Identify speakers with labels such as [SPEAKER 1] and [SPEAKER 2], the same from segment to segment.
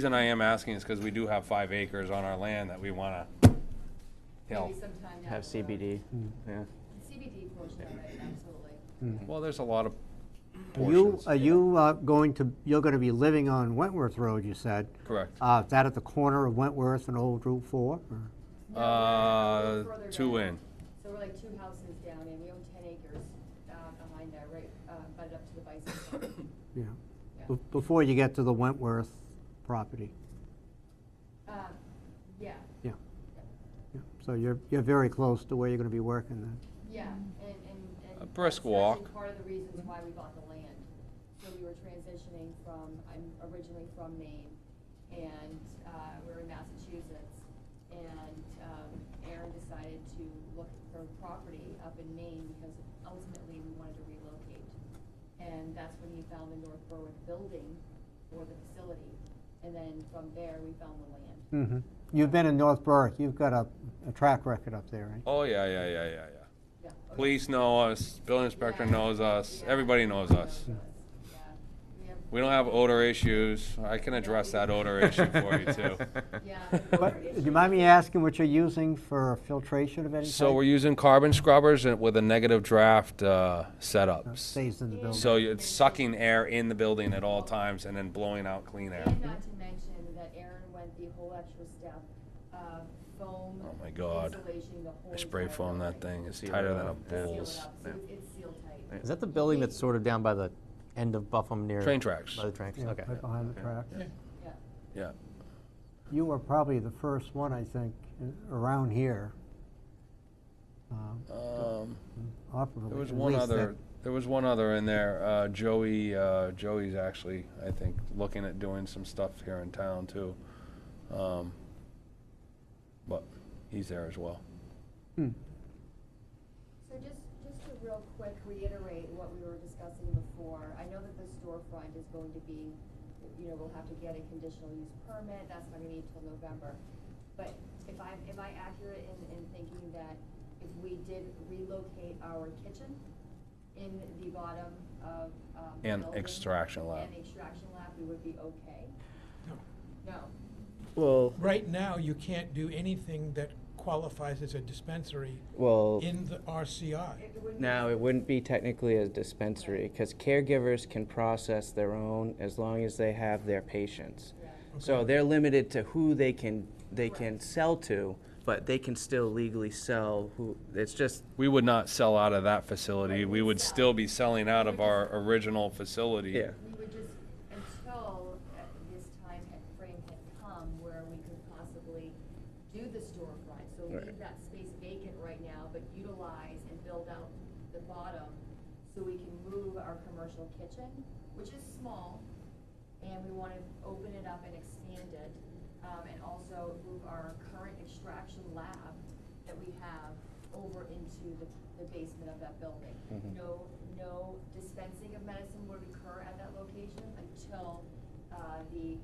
[SPEAKER 1] reason I am asking is because we do have five acres on our land that we want to, you know,
[SPEAKER 2] Maybe sometime down
[SPEAKER 3] Have
[SPEAKER 2] the road.
[SPEAKER 3] CBD, yeah.
[SPEAKER 2] CBD portion of it, absolutely.
[SPEAKER 1] well, there's a lot of
[SPEAKER 4] Are you,
[SPEAKER 1] portions.
[SPEAKER 4] are you uh, going to, you're going to be living on Wentworth Road, you said?
[SPEAKER 1] Correct.
[SPEAKER 4] Uh, Is that at the corner of Wentworth and Old Route 4?
[SPEAKER 2] No,
[SPEAKER 4] or-
[SPEAKER 2] we're a
[SPEAKER 1] Uh,
[SPEAKER 2] little further
[SPEAKER 1] two
[SPEAKER 2] down.
[SPEAKER 1] in.
[SPEAKER 2] So we're like two houses down and we own ten acres, uh, behind that, right, uh, butted up to the bison. farm.
[SPEAKER 4] Yeah.
[SPEAKER 2] Yeah.
[SPEAKER 4] Be- Before you get to the Wentworth property?
[SPEAKER 2] Uh, yeah,
[SPEAKER 4] Yeah. Yeah. So you're, you're very close to where you're going to be working then?
[SPEAKER 2] yeah, and, and. and
[SPEAKER 1] A brisk
[SPEAKER 2] that's actually
[SPEAKER 1] walk.
[SPEAKER 2] Part of the reasons why we bought the land. So we were transitioning from, I'm originally from Maine and, uh, we we're in Massachusetts. And, um, Aaron decided to look for property up in Maine because ultimately we wanted to relocate. And that's when he found the North Berwick building or the facility. And then from there, we found the land.
[SPEAKER 4] Mm-hmm. You've been in North Berwick, you've got a, a track record up there, right?
[SPEAKER 1] Oh, yeah, yeah, yeah, yeah, yeah.
[SPEAKER 2] Yeah.
[SPEAKER 1] Police know us, building inspector
[SPEAKER 2] Yeah.
[SPEAKER 1] knows us,
[SPEAKER 2] Yeah.
[SPEAKER 1] everybody knows us.
[SPEAKER 2] Yeah. We have-
[SPEAKER 1] We don't have odor issues. I can address that odor issue for you too.
[SPEAKER 2] Yeah.
[SPEAKER 4] But, do you mind me asking what you're using for filtration of any type?
[SPEAKER 1] So we're using carbon scrubbers and- with a negative draft uh,
[SPEAKER 4] That
[SPEAKER 1] setups.
[SPEAKER 4] Stays in the building?
[SPEAKER 1] So it's sucking air in the building at all times and then blowing out clean air.
[SPEAKER 2] And not to mention that Aaron went the whole extra step of foam.
[SPEAKER 1] Oh my God.
[SPEAKER 2] Insulation, the whole.
[SPEAKER 1] I spray
[SPEAKER 2] entire
[SPEAKER 1] foam that
[SPEAKER 2] building.
[SPEAKER 1] thing. It's
[SPEAKER 3] Seal
[SPEAKER 1] tighter
[SPEAKER 3] it
[SPEAKER 1] than a
[SPEAKER 3] up. Yeah.
[SPEAKER 2] Seal it up,
[SPEAKER 1] bull's.
[SPEAKER 2] so it's- it's sealed tight.
[SPEAKER 3] Is that the building that's sort of down by the end of Buffum near?
[SPEAKER 1] Train tracks.
[SPEAKER 3] By the train
[SPEAKER 4] Yeah,
[SPEAKER 3] tracks, okay.
[SPEAKER 4] Right behind the track?
[SPEAKER 2] Yeah.
[SPEAKER 1] Yeah.
[SPEAKER 4] You were probably the first one, I think, i- around here. um,
[SPEAKER 1] Um,
[SPEAKER 4] operably,
[SPEAKER 1] There was
[SPEAKER 4] at
[SPEAKER 1] one
[SPEAKER 4] least that-
[SPEAKER 1] other, there was one other in there. Uh, Joey, uh, Joey's actually, I think, looking at doing some stuff here in town too. Um, But he's there as well.
[SPEAKER 4] Hmm.
[SPEAKER 2] So just, just to real quick reiterate what we were discussing before, I know that the storefront is going to be, you know, we'll have to get a conditional use permit, that's not gonna be until November. But if I, am I accurate in, in thinking that if we did relocate our kitchen in the bottom of, um. the
[SPEAKER 1] And
[SPEAKER 2] building
[SPEAKER 1] extraction lab.
[SPEAKER 2] And extraction lab, we would be okay?
[SPEAKER 5] No.
[SPEAKER 2] No,
[SPEAKER 6] Well,
[SPEAKER 5] Right now, you can't do anything that qualifies as a dispensary
[SPEAKER 6] well,
[SPEAKER 5] in the RCI.
[SPEAKER 2] it it wouldn't. be-
[SPEAKER 6] now it wouldn't be technically a dispensary because caregivers can process their own as long as they have their patients.
[SPEAKER 2] Yeah.
[SPEAKER 6] So they're limited to who they can, they can
[SPEAKER 2] Correct.
[SPEAKER 6] sell to, but they can still legally sell who, it's just,
[SPEAKER 1] We would not sell out of that facility.
[SPEAKER 2] Right,
[SPEAKER 1] We
[SPEAKER 2] we'd
[SPEAKER 1] would
[SPEAKER 2] sell.
[SPEAKER 1] still be selling out of our original facility.
[SPEAKER 6] yeah.
[SPEAKER 2] We would just, until uh, this time and frame had come where we could possibly do the storefront. So leave
[SPEAKER 6] Right.
[SPEAKER 2] that space vacant right now, but utilize and build out the bottom so we can move our commercial kitchen, which is small. And we want to open it up and expand it, um, and also move our current extraction lab that we have over into the, the basement of that building.
[SPEAKER 6] Mhm.
[SPEAKER 2] No, no dispensing of medicine would occur at that location until, uh, the,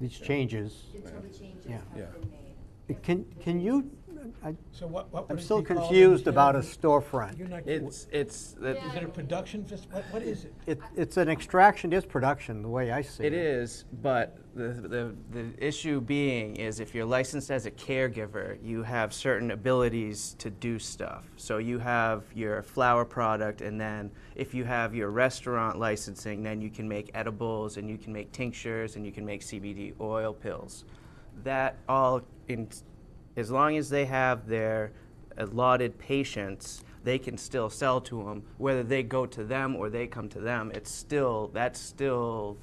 [SPEAKER 4] These changes.
[SPEAKER 2] until the changes
[SPEAKER 4] Yeah.
[SPEAKER 2] have
[SPEAKER 1] Yeah.
[SPEAKER 2] been made. If
[SPEAKER 4] Can,
[SPEAKER 2] the
[SPEAKER 4] can you,
[SPEAKER 2] changes-
[SPEAKER 4] I,
[SPEAKER 5] So what, what
[SPEAKER 4] I'm
[SPEAKER 5] would it be
[SPEAKER 4] still
[SPEAKER 5] called in
[SPEAKER 4] confused about a
[SPEAKER 5] Germany? You're
[SPEAKER 4] storefront.
[SPEAKER 5] not-
[SPEAKER 6] It's, it's, that-
[SPEAKER 5] Is it a production, fac- what, what is it?
[SPEAKER 4] It, it's an extraction, it's production, the way I see it.
[SPEAKER 6] it is, but the, the, the issue being is if you're licensed as a caregiver, you have certain abilities to do stuff. So you have your flower product and then if you have your restaurant licensing, then you can make edibles and you can make tinctures and you can make CBD oil pills. That all in, as long as they have their allotted patients, they can still sell to them. Whether they go to them or they come to them, it's still, that's still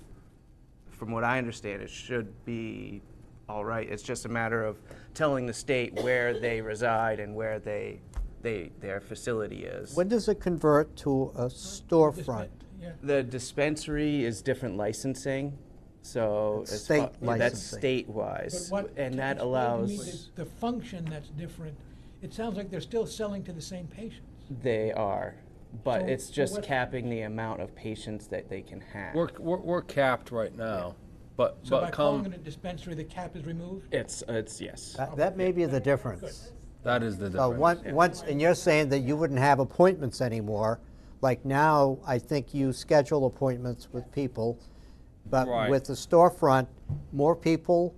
[SPEAKER 6] from what I understand, it should be all right. It's just a matter of telling the state where they reside and where they, they, their facility is.
[SPEAKER 4] When does it convert to a storefront?
[SPEAKER 5] Yeah.
[SPEAKER 6] The dispensary is different licensing, so.
[SPEAKER 4] That's
[SPEAKER 6] as
[SPEAKER 4] state
[SPEAKER 6] fa- That's
[SPEAKER 4] licensing.
[SPEAKER 5] But
[SPEAKER 6] state-wise,
[SPEAKER 5] what-
[SPEAKER 6] and that
[SPEAKER 5] explain to me
[SPEAKER 6] allows,
[SPEAKER 5] The the function that's different, it sounds like they're still selling to the same patients.
[SPEAKER 6] they are, but
[SPEAKER 5] So-
[SPEAKER 6] it's
[SPEAKER 5] so
[SPEAKER 6] just
[SPEAKER 5] what-
[SPEAKER 6] capping the amount of patients that they can have.
[SPEAKER 1] We're, we're, we're capped right now, but,
[SPEAKER 5] So by
[SPEAKER 1] but
[SPEAKER 5] calling it
[SPEAKER 1] come,
[SPEAKER 5] a dispensary, the cap is removed?
[SPEAKER 6] It's, it's, yes.
[SPEAKER 4] That, that may be the difference.
[SPEAKER 1] that is the
[SPEAKER 4] So
[SPEAKER 1] difference.
[SPEAKER 4] one- once, and you're saying that you wouldn't have appointments anymore, like now, I think you schedule appointments with people, But
[SPEAKER 1] Right.
[SPEAKER 4] with the storefront, more people